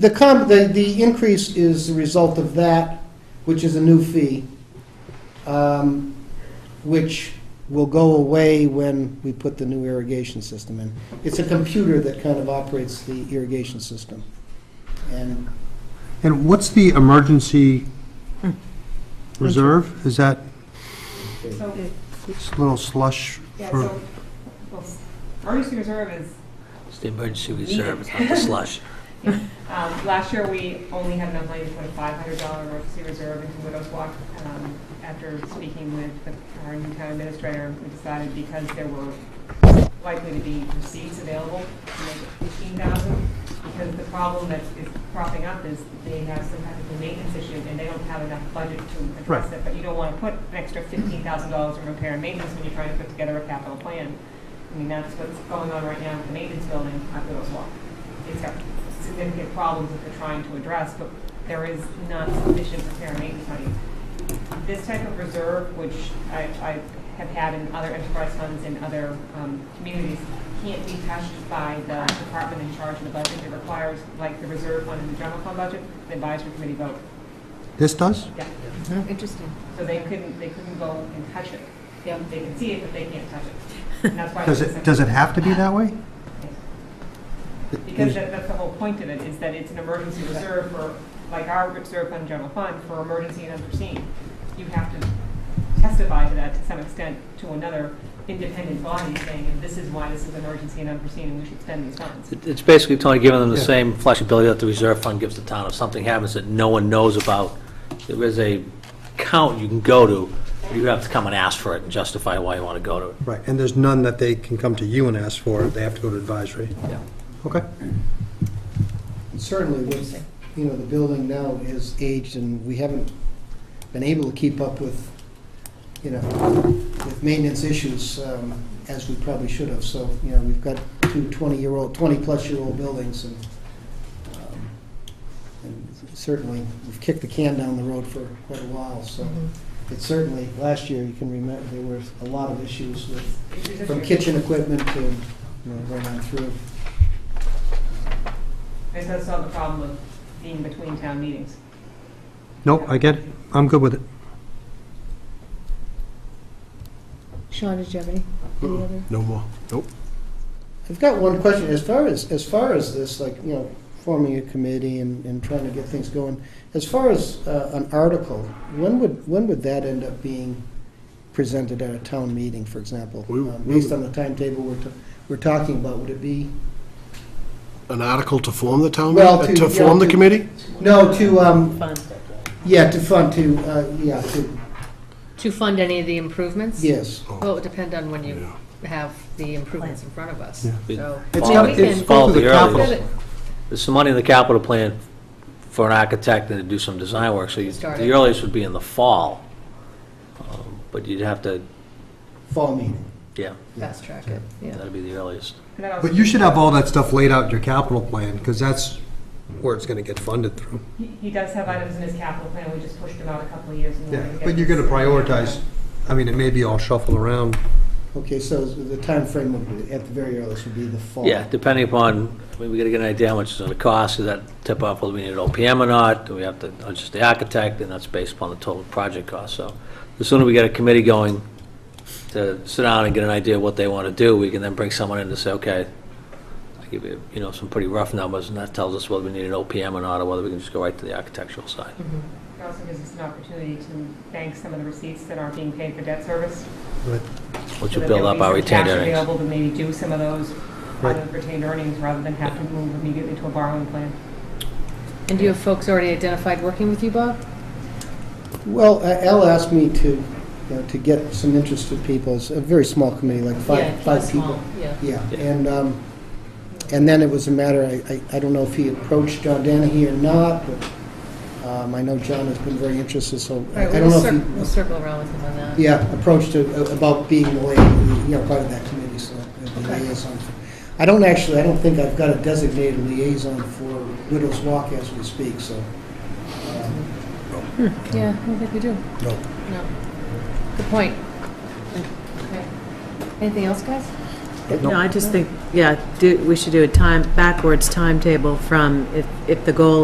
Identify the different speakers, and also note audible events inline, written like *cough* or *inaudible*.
Speaker 1: the com, the, the increase is the result of that, which is a new fee, um, which will go away when we put the new irrigation system in. It's a computer that kind of operates the irrigation system. And
Speaker 2: And what's the emergency
Speaker 1: Hmm.
Speaker 2: reserve? Is that
Speaker 3: So,
Speaker 2: s- little slush
Speaker 3: yeah,
Speaker 2: for,
Speaker 3: so, well, emergency reserve is,
Speaker 4: It's the emergency reserve, it's
Speaker 5: *laughs*
Speaker 4: not the slush.
Speaker 3: um, last year, we only had enough money to put a five hundred dollar emergency reserve into Widows Walk. Um, After speaking with the- our new town administrator, we decided because there were likely to be receipts available to make it fifteen thousand, because the problem that is cropping up is they have some kind of a maintenance issue, and they don't have enough budget to address it, but you don't want to put an extra fifteen thousand dollars in repair and maintenance when you're trying to put together a capital plan. I mean, that's what's going on right now with the maintenance building at Widows Walk. It's got significant problems that they're trying to address, but there is not sufficient repair and maintenance money. This type of reserve, which I, I have had in other enterprise funds in other, um, communities, can't be touched by the department in charge of the budget. It requires, like the reserve fund and the general fund budget, the advisory committee vote.
Speaker 2: this does?
Speaker 3: Yeah.
Speaker 5: Interesting.
Speaker 3: So they couldn't, they couldn't go and touch it. They they can see it, but they can't touch it. And that's why.
Speaker 2: Does
Speaker 3: it's a-
Speaker 2: it, does it have to be that way?
Speaker 3: Because that, that's the whole point of it, is that it's an emergency reserve for, like our reserve fund, general fund, for emergency and unforeseen. You have to testify to that to some extent to another independent body saying, this is why this is emergency and unforeseen, and we should spend these funds.
Speaker 4: It- It's basically, Tony, giving them the
Speaker 2: Yeah.
Speaker 4: same flexibility that the reserve fund gives the town. If something happens that no one knows about, there is a count you can go to, but you have to come and ask for it and justify why you want to go to it.
Speaker 2: Right, and there's none that they can come to you and ask for, they have to go to advisory.
Speaker 4: Yeah.
Speaker 2: Okay.
Speaker 1: certainly with, you know, the building now is aged and we haven't been able to keep up with, you know, with maintenance issues um, as we probably should have. So, you know, we've got two 20-year-old, 20-plus-year-old buildings and um, and certainly we've kicked the can down the road for quite a while. So it certainly, last year, you can remember, there were a lot of issues with from kitchen equipment to, you know, right on through.
Speaker 3: It does solve the problem of being between town meetings.
Speaker 2: Nope, I get it. I'm good with it.
Speaker 5: Sean, did you have any? any other?
Speaker 6: No more. Nope.
Speaker 1: I've got one question, as far as, as far as this, like, you know, forming a committee and, and trying to get things going, as far as uh, an article, when would, when would that end up being presented at a town meeting, for example?
Speaker 6: We-
Speaker 1: Um, Based on the timetable we're, ta- we're talking about, would it be,
Speaker 6: An article to form the town,
Speaker 1: Well,
Speaker 6: meeting-
Speaker 1: to-
Speaker 6: to form
Speaker 1: yeah,
Speaker 6: the
Speaker 1: to-
Speaker 6: committee?
Speaker 1: no, to, um, yeah, to fund, to, uh, yeah, to,
Speaker 5: To fund any of the improvements?
Speaker 1: yes.
Speaker 5: Well, it would depend on when you
Speaker 6: Yeah.
Speaker 5: have the improvements in front of us.
Speaker 4: Yeah.
Speaker 5: So,
Speaker 2: It's
Speaker 5: Yeah,
Speaker 2: got,
Speaker 5: we
Speaker 2: it's
Speaker 5: can-
Speaker 2: fall to the
Speaker 4: Follow the
Speaker 2: capital.
Speaker 4: earliest. There's some money in the capital plan for an architect and to do some design work, so you-
Speaker 5: Start
Speaker 4: the
Speaker 5: it.
Speaker 4: earliest would be in the fall. Um, But you'd have to,
Speaker 1: Fall meeting.
Speaker 4: yeah,
Speaker 5: fast track it, yeah.
Speaker 4: that'd be the earliest.
Speaker 3: And that also-
Speaker 2: But you should have all that stuff laid out in your capital plan, because that's where it's going to get funded through.
Speaker 3: He he does have items in his capital plan, we just pushed him out a couple of years. in order
Speaker 2: Yeah,
Speaker 3: to get
Speaker 2: but you're going to
Speaker 3: this-
Speaker 2: prioritize, I mean, it may be all shuffled around.
Speaker 1: Okay, so the time frame would, be- at the very earliest, would be the fall.
Speaker 4: Yeah, depending upon, I mean, we gotta get an idea how much it's gonna cost, does that tip off whether we need an OPM or not, do we have to, or just the architect, and that's based upon the total project cost, so the sooner we get a committee going to sit down and get an idea of what they wanna do, we can then bring someone in to say, okay, I give you, you know, some pretty rough numbers, and that tells us whether we need an OPM or not, or whether we can just go right to the architectural side.
Speaker 5: Mm-hmm.
Speaker 3: It also gives us an opportunity to bank some of the receipts that aren't being paid for debt service.
Speaker 4: Which
Speaker 3: so that
Speaker 4: will
Speaker 3: there
Speaker 4: build
Speaker 3: will
Speaker 4: up
Speaker 3: be
Speaker 4: our
Speaker 3: some
Speaker 4: retained
Speaker 3: Cash
Speaker 4: earnings.
Speaker 3: available to maybe do some of those out
Speaker 2: Right.
Speaker 3: of retained earnings rather than have to move immediately to a borrowing plan.
Speaker 5: And do you have folks already identified working with you, Bob?
Speaker 1: Well, uh, Al asked me to, you know, to get some interested people, it's a very small committee, like
Speaker 5: Yeah,
Speaker 1: five, five
Speaker 5: small,
Speaker 1: people.
Speaker 5: Yeah.
Speaker 1: Yeah,
Speaker 4: Yeah.
Speaker 1: and, um, and then it was a matter, I, I- I don't know if he approached John Danahy or not, but, um, I know John has been very interested, so
Speaker 5: All
Speaker 1: I
Speaker 5: right,
Speaker 1: I don't
Speaker 5: we'll
Speaker 1: know
Speaker 5: cir- we'll
Speaker 1: if
Speaker 5: circle around with him on that.
Speaker 1: he, yeah, approached to- about being the way, you know, part of that committee, so, uh, the
Speaker 5: Okay.
Speaker 1: liaison. I don't actually, I don't think I've got a designated liaison for Widows Walk as we speak, so. um,
Speaker 5: Yeah, I don't think we do.
Speaker 6: No.
Speaker 5: No. Good point. Okay. Anything else, guys?
Speaker 7: No, I just think, yeah, do- we should do a time, backwards timetable from if, if the goal